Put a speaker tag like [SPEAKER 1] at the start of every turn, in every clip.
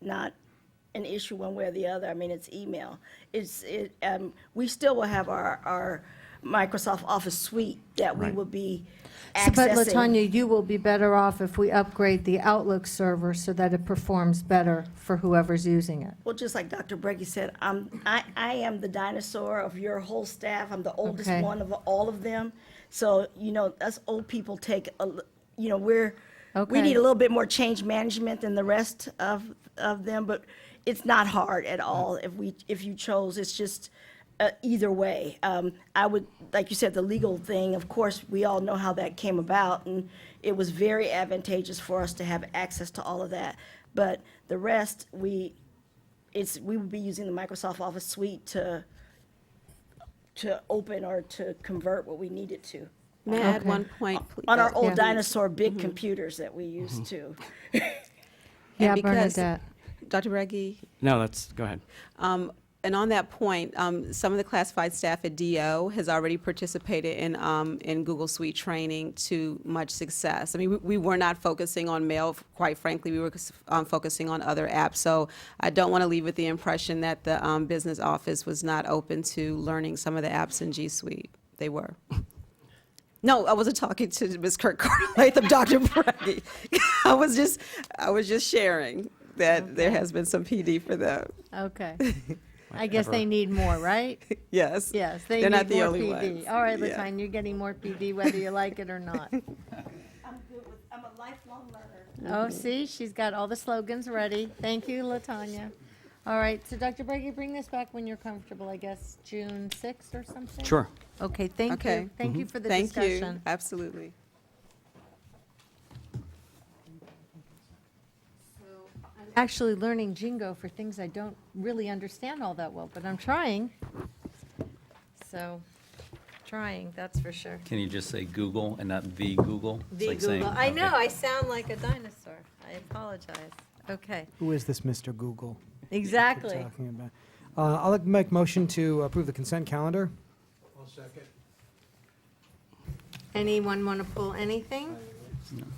[SPEAKER 1] not an issue one way or the other. I mean, it's email. It's, it, um, we still will have our, our Microsoft Office suite that we
[SPEAKER 2] Right.
[SPEAKER 1] will be
[SPEAKER 3] So, But
[SPEAKER 1] accessing.
[SPEAKER 3] Latanya, you will be better off if we upgrade the Outlook server so that it performs better for whoever's using it.
[SPEAKER 1] Well, just like Dr. Breggy said, I'm, I, I am the dinosaur of your whole staff. I'm the oldest
[SPEAKER 3] Okay.
[SPEAKER 1] one of all of them. So, you know, us old people take, a l- you know, we're, we
[SPEAKER 3] Okay.
[SPEAKER 1] need a little bit more change management than the rest of, of them, but it's not hard at all if we, if you chose. It's just, uh, either way. Um, I would, like you said, the legal thing, of course, we all know how that came about, and it was very advantageous for us to have access to all of that. But the rest, we, it's, we would be using the Microsoft Office suite to, to open or to convert what we needed to.
[SPEAKER 4] May I add
[SPEAKER 3] Okay.
[SPEAKER 4] one point? pl-
[SPEAKER 1] On our
[SPEAKER 4] uh,
[SPEAKER 1] old
[SPEAKER 3] Yeah.
[SPEAKER 1] dinosaur big computers that we used to.
[SPEAKER 3] Yeah,
[SPEAKER 4] and because-
[SPEAKER 3] Bernadette.
[SPEAKER 4] Dr. Reggie,
[SPEAKER 2] No, that's, go ahead.
[SPEAKER 4] um, and on that point, um, some of the classified staff at DO has already participated in, um, in Google Suite training to much success. I mean, we, we were not focusing on mail, quite frankly, we were um, focusing on other apps. So I don't want to leave with the impression that the um, business office was not open to learning some of the apps in G Suite. They were. No, I wasn't talking to Ms. Kirk Carter Latham, Dr. Brady. I was just, I was just sharing that there has been some PD for them.
[SPEAKER 3] Okay. I guess they need more, right?
[SPEAKER 4] Yes.
[SPEAKER 3] Yes, they
[SPEAKER 4] They're
[SPEAKER 3] need
[SPEAKER 4] not the
[SPEAKER 3] more
[SPEAKER 4] only
[SPEAKER 3] PD.
[SPEAKER 4] ones.
[SPEAKER 3] All right,
[SPEAKER 4] Yeah.
[SPEAKER 3] Latanya, you're getting more PD whether you like it or not.
[SPEAKER 1] I'm good with, I'm a lifelong learner.
[SPEAKER 3] Oh, see, she's got all the slogans ready. Thank you, Latanya. All right, so Dr. Brady, bring this back when you're comfortable, I guess, June 6th or something?
[SPEAKER 2] Sure.
[SPEAKER 3] Okay, thank
[SPEAKER 4] Okay.
[SPEAKER 3] you. Thank you for the
[SPEAKER 4] Mm-hmm. Thank you.
[SPEAKER 3] discussion.
[SPEAKER 4] Absolutely.
[SPEAKER 3] I'm Actually learning jingo for things I don't really understand all that well, but I'm trying. So, trying, that's for sure.
[SPEAKER 5] Can you just say Google and not the Google? It's
[SPEAKER 3] The
[SPEAKER 5] like saying-
[SPEAKER 3] Google, I
[SPEAKER 5] okay.
[SPEAKER 3] know, I sound like a dinosaur. I apologize. Okay,
[SPEAKER 6] Who is this Mr. Google? that you're
[SPEAKER 3] exactly.
[SPEAKER 6] Talking about. Uh, I'll make motion to approve the consent calendar.
[SPEAKER 3] Anyone want to pull anything?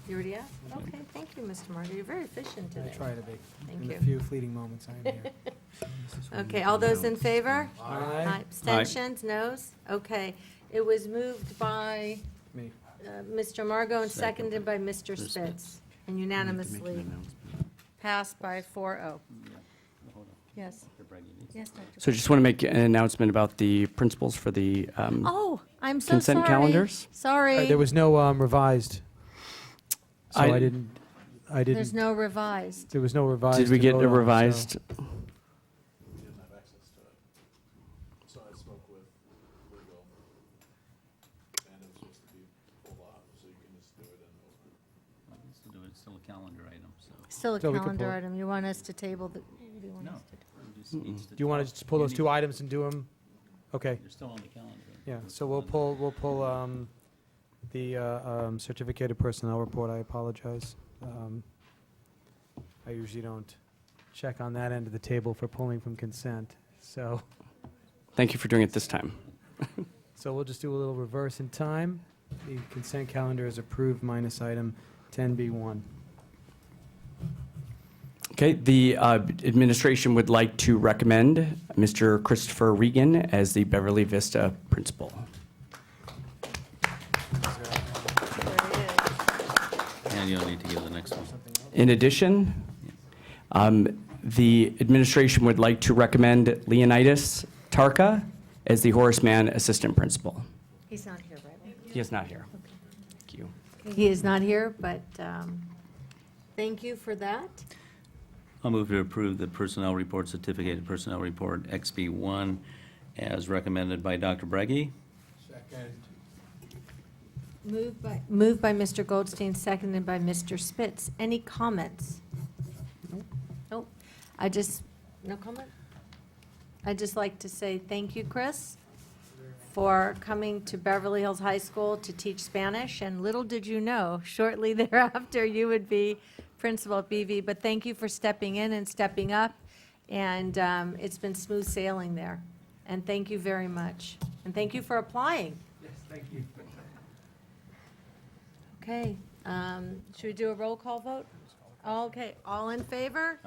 [SPEAKER 3] You already asked? Okay, thank you, Mr. Margot. You're very efficient
[SPEAKER 6] I
[SPEAKER 3] today.
[SPEAKER 6] try to be.
[SPEAKER 3] Thank
[SPEAKER 6] In
[SPEAKER 3] you.
[SPEAKER 6] the few fleeting moments I am here.
[SPEAKER 3] Okay, all those in favor?
[SPEAKER 6] Aye.
[SPEAKER 3] Abstentions, noes? Okay, it was moved by
[SPEAKER 6] Me.
[SPEAKER 3] uh, Mr. Margot and
[SPEAKER 5] Second.
[SPEAKER 3] seconded by Mr.
[SPEAKER 5] Spitz.
[SPEAKER 3] Spitz, and unanimously passed by 4-0. Yes, yes, Dr.
[SPEAKER 2] So just want to make an announcement about the principles for the, um,
[SPEAKER 3] Oh, I'm so sorry.
[SPEAKER 2] Consent calendars?
[SPEAKER 6] All right, There
[SPEAKER 3] Sorry,
[SPEAKER 6] was no um, revised. So
[SPEAKER 2] I-
[SPEAKER 6] I didn't, I
[SPEAKER 3] there's
[SPEAKER 6] didn't,
[SPEAKER 3] no revised.
[SPEAKER 6] there was no revised.
[SPEAKER 2] did we
[SPEAKER 6] to
[SPEAKER 2] get
[SPEAKER 6] vote
[SPEAKER 2] a
[SPEAKER 6] on, so-
[SPEAKER 2] revised?
[SPEAKER 5] Still do it, It's still a calendar item, so.
[SPEAKER 3] Still a
[SPEAKER 6] So we can
[SPEAKER 3] calendar
[SPEAKER 6] pull-
[SPEAKER 3] item. You want us to table the, you want
[SPEAKER 5] No.
[SPEAKER 3] us to-
[SPEAKER 5] you just need to-
[SPEAKER 6] Do you want to just pull those
[SPEAKER 5] need-
[SPEAKER 6] two items and do them? Okay,
[SPEAKER 5] You're still on the calendar.
[SPEAKER 6] yeah, so we'll pull, we'll pull um, the uh, um, certificated personnel report, I apologize. Um, I usually don't check on that end of the table for pulling from consent, so.
[SPEAKER 2] Thank you for doing it this time.
[SPEAKER 6] So we'll just do a little reverse in time. The consent calendar is approved minus item 10B1.
[SPEAKER 2] Okay, the uh, administration would like to recommend Mr. Christopher Regan as the Beverly Vista principal.
[SPEAKER 5] And you'll need to give the next one.
[SPEAKER 2] In addition, um, the administration would like to recommend Leonidas Tarka as the Horace Mann assistant principal.
[SPEAKER 3] He's not here, right?
[SPEAKER 2] He is not here. Thank you.
[SPEAKER 3] He is not here, but um, thank you for that.
[SPEAKER 5] I'll move to approve the personnel report, certificated personnel report XB1 as recommended by Dr. Breggy.
[SPEAKER 3] Moved by. Moved by Mr. Goldstein, seconded by Mr. Spitz. Any comments? Nope. I just, no comment? I'd just like to say thank you, Chris, for coming to Beverly Hills High School to teach Spanish. And little did you know, shortly thereafter, you would be principal at BV. But thank you for stepping in and stepping up. And um, it's been smooth sailing there. And thank you very much. And thank you for applying. Okay, um, should we do a roll call vote? Okay, all in favor?